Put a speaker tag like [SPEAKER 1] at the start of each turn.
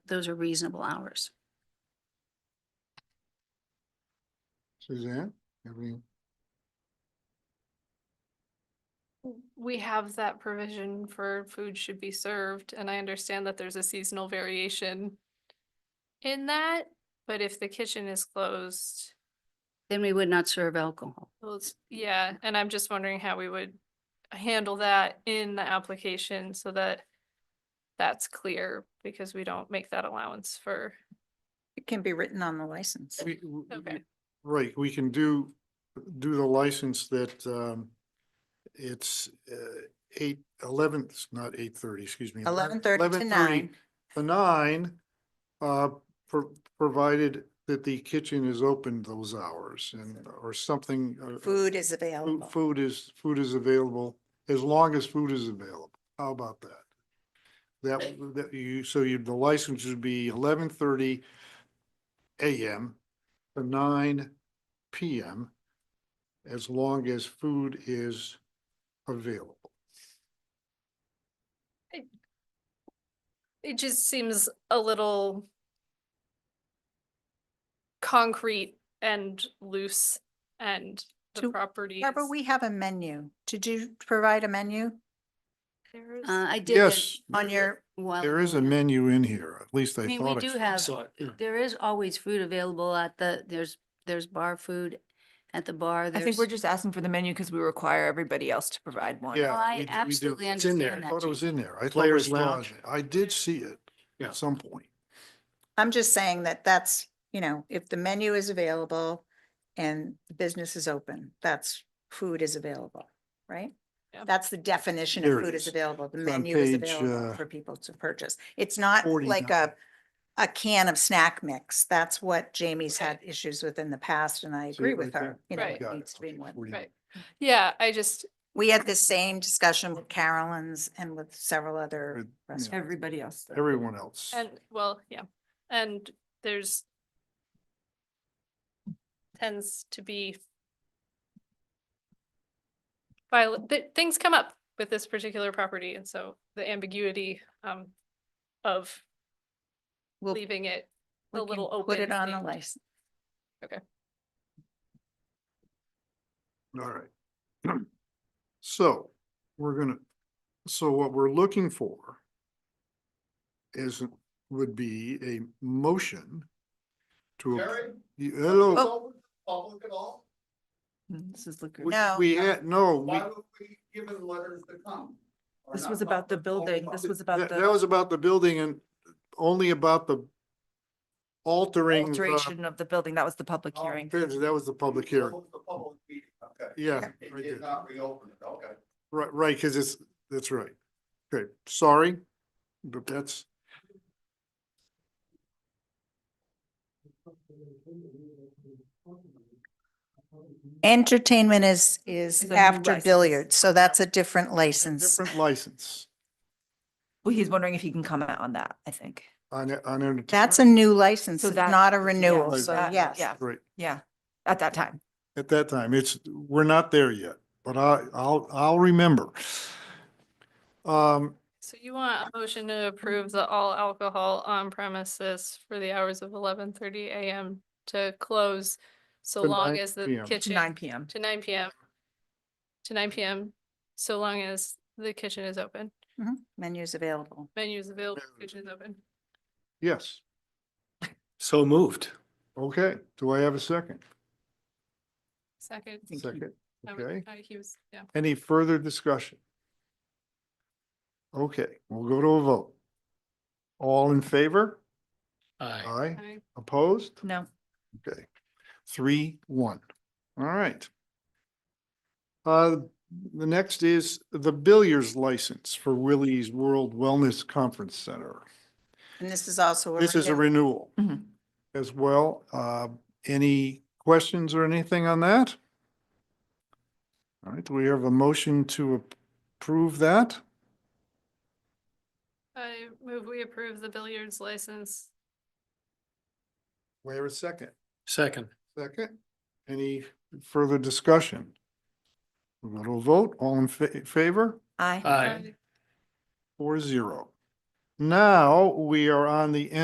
[SPEAKER 1] those are reasonable hours.
[SPEAKER 2] Suzanne, have any?
[SPEAKER 3] We have that provision for food should be served, and I understand that there's a seasonal variation in that, but if the kitchen is closed,
[SPEAKER 1] Then we would not serve alcohol.
[SPEAKER 3] well, it's- yeah, and I'm just wondering how we would handle that in the application so that that's clear, because we don't make that allowance for,
[SPEAKER 4] It can be written on the license.
[SPEAKER 2] We- w-
[SPEAKER 3] Okay.
[SPEAKER 2] we- Right, we can do, do the license that, um, it's, uh, eight, eleven, it's not eight thirty, excuse me.
[SPEAKER 4] Eleven thirty to
[SPEAKER 2] 11:30
[SPEAKER 4] nine.
[SPEAKER 2] To nine, uh, pro- provided that the kitchen is open those hours and, or something. uh, uh,
[SPEAKER 4] Food is
[SPEAKER 2] food-
[SPEAKER 4] available.
[SPEAKER 2] Food is, food is available, as long as food is available. How about that? That, w- that you, so you, the license would be eleven thirty AM to nine PM, as long as food is available.
[SPEAKER 3] it just seems a little concrete and loose and the
[SPEAKER 4] To-
[SPEAKER 3] property.
[SPEAKER 4] Barbara,
[SPEAKER 3] is-
[SPEAKER 4] we have a menu. Did you provide a menu
[SPEAKER 3] There is-
[SPEAKER 1] Uh, I did. that
[SPEAKER 2] Yes.
[SPEAKER 4] on your,
[SPEAKER 1] while
[SPEAKER 2] There is a menu in here, at least I
[SPEAKER 1] I
[SPEAKER 2] thought.
[SPEAKER 1] mean, we
[SPEAKER 2] I
[SPEAKER 1] do
[SPEAKER 2] saw-
[SPEAKER 1] have,
[SPEAKER 5] saw it, yeah.
[SPEAKER 1] there is always food available at the, there's, there's bar food at the bar.
[SPEAKER 6] I think
[SPEAKER 1] there's-
[SPEAKER 6] we're just asking for the menu because we require everybody else to provide one.
[SPEAKER 2] Yeah.
[SPEAKER 1] Oh,
[SPEAKER 2] we
[SPEAKER 1] I
[SPEAKER 2] do- we do.
[SPEAKER 1] absolutely
[SPEAKER 5] It's in there.
[SPEAKER 1] understand
[SPEAKER 2] I
[SPEAKER 1] that.
[SPEAKER 2] thought it was
[SPEAKER 1] Jean.
[SPEAKER 2] in there. I thought I
[SPEAKER 5] Players
[SPEAKER 2] saw
[SPEAKER 5] Lounge.
[SPEAKER 2] it. I did see it
[SPEAKER 5] Yeah.
[SPEAKER 2] at some point.
[SPEAKER 4] I'm just saying that that's, you know, if the menu is available and the business is open, that's, food is available, right?
[SPEAKER 3] Yeah.
[SPEAKER 4] That's the definition
[SPEAKER 2] Here
[SPEAKER 4] of
[SPEAKER 2] it
[SPEAKER 4] food
[SPEAKER 2] is.
[SPEAKER 4] is available. The
[SPEAKER 2] It's on
[SPEAKER 4] menu is
[SPEAKER 2] page, uh,
[SPEAKER 4] available for people to purchase. It's not like
[SPEAKER 2] 49.
[SPEAKER 4] a, a can of snack mix. That's what Jamie's
[SPEAKER 3] Right.
[SPEAKER 4] had issues with in the past and I
[SPEAKER 2] See
[SPEAKER 4] agree
[SPEAKER 2] it right
[SPEAKER 4] with
[SPEAKER 2] there?
[SPEAKER 4] her. You know,
[SPEAKER 3] Right.
[SPEAKER 4] it
[SPEAKER 2] Got it.
[SPEAKER 4] needs to be
[SPEAKER 2] Okay,
[SPEAKER 4] more.
[SPEAKER 2] 49.
[SPEAKER 3] Right. Yeah, I just,
[SPEAKER 4] We had the same discussion with Carolyn's and with several other
[SPEAKER 2] With, yeah,
[SPEAKER 4] restaurants.
[SPEAKER 6] Everybody else. though.
[SPEAKER 2] Everyone else.
[SPEAKER 3] and, well, yeah, and there's tends to be viol th- things come up with this particular property, and so the ambiguity um of
[SPEAKER 4] We'll-
[SPEAKER 3] leaving it
[SPEAKER 4] we
[SPEAKER 3] a
[SPEAKER 4] can
[SPEAKER 3] little open.
[SPEAKER 4] Put it on the
[SPEAKER 3] seemed-
[SPEAKER 4] license.
[SPEAKER 2] All right. So we're gonna, so what we're looking for is, would be a motion to. ap- You- Hello.
[SPEAKER 6] Oh.
[SPEAKER 7] open to the public at all?
[SPEAKER 6] Mm, This is liquor.
[SPEAKER 2] We-
[SPEAKER 4] No.
[SPEAKER 2] We had, no, Oh, we-
[SPEAKER 7] Why would we give them letters to come? Or
[SPEAKER 6] This
[SPEAKER 7] not
[SPEAKER 6] was about the
[SPEAKER 7] public, only
[SPEAKER 6] building. This
[SPEAKER 7] public?
[SPEAKER 6] was about
[SPEAKER 2] that, that was
[SPEAKER 6] the
[SPEAKER 2] about the building and only about the altering. the-
[SPEAKER 6] alteration of the building. That was the public
[SPEAKER 2] um,
[SPEAKER 7] Oh,
[SPEAKER 6] hearing.
[SPEAKER 2] That was the public
[SPEAKER 7] That
[SPEAKER 2] hearing.
[SPEAKER 7] was The public meeting, okay.
[SPEAKER 2] Yeah.
[SPEAKER 7] It
[SPEAKER 2] right
[SPEAKER 7] did
[SPEAKER 2] there.
[SPEAKER 7] not reopen it, okay.
[SPEAKER 2] Right, right, because it's, that's right. Okay, sorry, but that's.
[SPEAKER 4] Entertainment is, is
[SPEAKER 6] Is a new
[SPEAKER 4] after
[SPEAKER 6] license.
[SPEAKER 4] billiards, so that's a different
[SPEAKER 2] a
[SPEAKER 4] license.
[SPEAKER 2] Different license
[SPEAKER 6] Well, he's wondering if he can comment on that, I think.
[SPEAKER 2] on, on. entertainment.
[SPEAKER 4] That's a new license,
[SPEAKER 6] So
[SPEAKER 4] it's
[SPEAKER 6] that-
[SPEAKER 4] not a
[SPEAKER 6] yeah,
[SPEAKER 4] renewal,
[SPEAKER 2] like
[SPEAKER 4] so
[SPEAKER 6] that-
[SPEAKER 4] yes.
[SPEAKER 6] Yeah,
[SPEAKER 2] Right,
[SPEAKER 6] yeah, at that time.
[SPEAKER 2] at that time, it's, we're not there yet, but I, I'll, I'll remember. Um,
[SPEAKER 3] So you want a motion to approve the all alcohol on premises for the hours of eleven thirty AM to close so
[SPEAKER 2] To
[SPEAKER 3] long
[SPEAKER 2] 9
[SPEAKER 3] as the
[SPEAKER 2] PM.
[SPEAKER 3] kitchen,
[SPEAKER 6] Nine PM.
[SPEAKER 3] to nine PM, to nine PM, so long as the kitchen is open,
[SPEAKER 4] Mhm, Menu's available.
[SPEAKER 3] menu's available,
[SPEAKER 2] Menu's
[SPEAKER 3] kitchen is open.
[SPEAKER 2] yes,
[SPEAKER 5] So moved.
[SPEAKER 2] okay, do I have a second?
[SPEAKER 3] Second.
[SPEAKER 6] Thank you.
[SPEAKER 2] Second,
[SPEAKER 3] I was-
[SPEAKER 2] okay.
[SPEAKER 3] I- He was, yeah.
[SPEAKER 2] Any further discussion? Okay, we'll go to a vote. All in favor?
[SPEAKER 5] Aye.
[SPEAKER 2] Aye,
[SPEAKER 3] I-
[SPEAKER 2] opposed?
[SPEAKER 6] No.
[SPEAKER 2] Okay, three, one. All right. Uh, the next is the billiards license for Willie's World Wellness Conference Center.
[SPEAKER 4] And this is also.
[SPEAKER 2] This is a
[SPEAKER 4] renewal.
[SPEAKER 2] renewal
[SPEAKER 6] Mhm.
[SPEAKER 2] as well. Uh, any questions or anything on that? All right, do we have a motion to approve that?
[SPEAKER 3] I move we approve the billiards license.
[SPEAKER 2] Wait a second.
[SPEAKER 5] Second.
[SPEAKER 2] Second. Any further discussion? We'll go to a vote. All in fa- favor?
[SPEAKER 6] Aye.
[SPEAKER 5] Aye.
[SPEAKER 2] Four zero. Now, we are on the